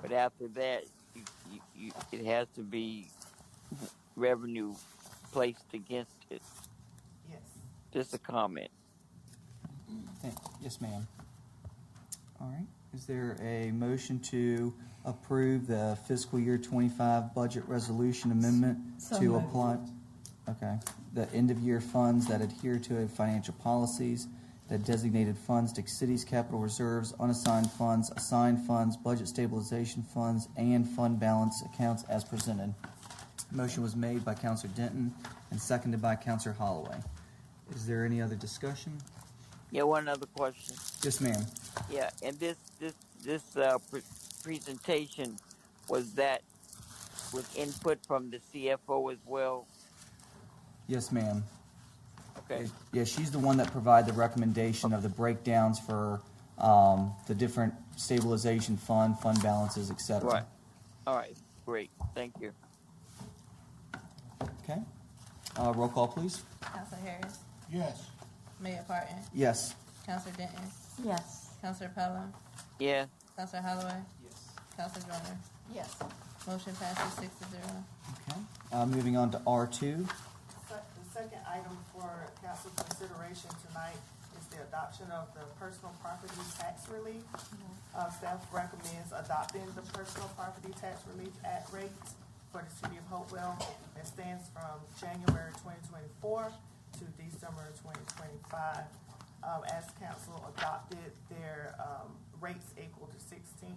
But after that, you, you, you, it has to be revenue placed against it. Yes. Just a comment. Thank, yes, ma'am. All right. Is there a motion to approve the fiscal year 25 budget resolution amendment So to moved. apply? Okay. The end-of-year funds that adhere to financial policies, that designated funds to cities' capital reserves, unassigned funds, assigned funds, budget stabilization funds, and fund balance accounts as presented. Motion was made by Counselor Denton and seconded by Counselor Holloway. Is there any other discussion? Yeah, one other question. Yes, ma'am. Yeah, and this this this uh, pre- presentation was that with input from the CFO as well. Yes, ma'am. Okay. Yeah, she's the one that provided the recommendation of the breakdowns for um, the different stabilization fund, fund balances, et cetera. Right. All right. Great. Thank you. Okay. Uh, Roll call, please. Counselor Harris, yes, Mayor Parton, Yes. Counselor Denton, Yes. Counselor Pelham, Yeah. Counselor Holloway, Counselor Joyner. Yes. Motion passes six to zero. Okay. Uh, Moving on to R2. Sec- The second item for council consideration tonight is the adoption of the personal property tax relief. Uh, staff recommends adopting the personal property tax relief at rate for the city of Hopewell that stands from January twenty twenty-four to December twenty twenty-five. Um, as council adopted their, um, rates equal to sixteen,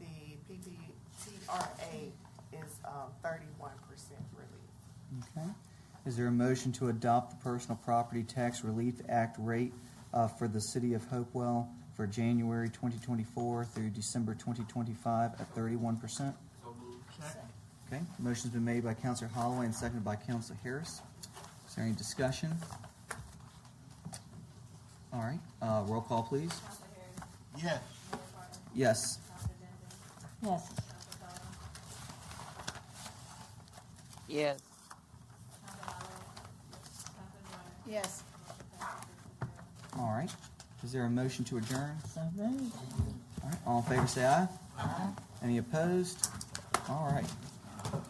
the PPTRA is, um, thirty-one percent relief. Okay. Is there a motion to adopt the Personal Property Tax Relief Act rate uh, for the city of Hopewell for January 2024 through December 2025 at 31%? Okay, motion's been made by Counselor Holloway and seconded by Counselor Harris. Is there any discussion? All right, uh, roll call, please. Counselor Harris, yes, Mayor Parton, Yes. Counselor Denton, Yes. Counselor Pelham, Yes. Counselor Holloway, Counselor Joyner. Yes. Motion passes six to zero. All right, is there a motion to adjourn? So moved. All right, all in favor, say aye. Aye. Any opposed? All right.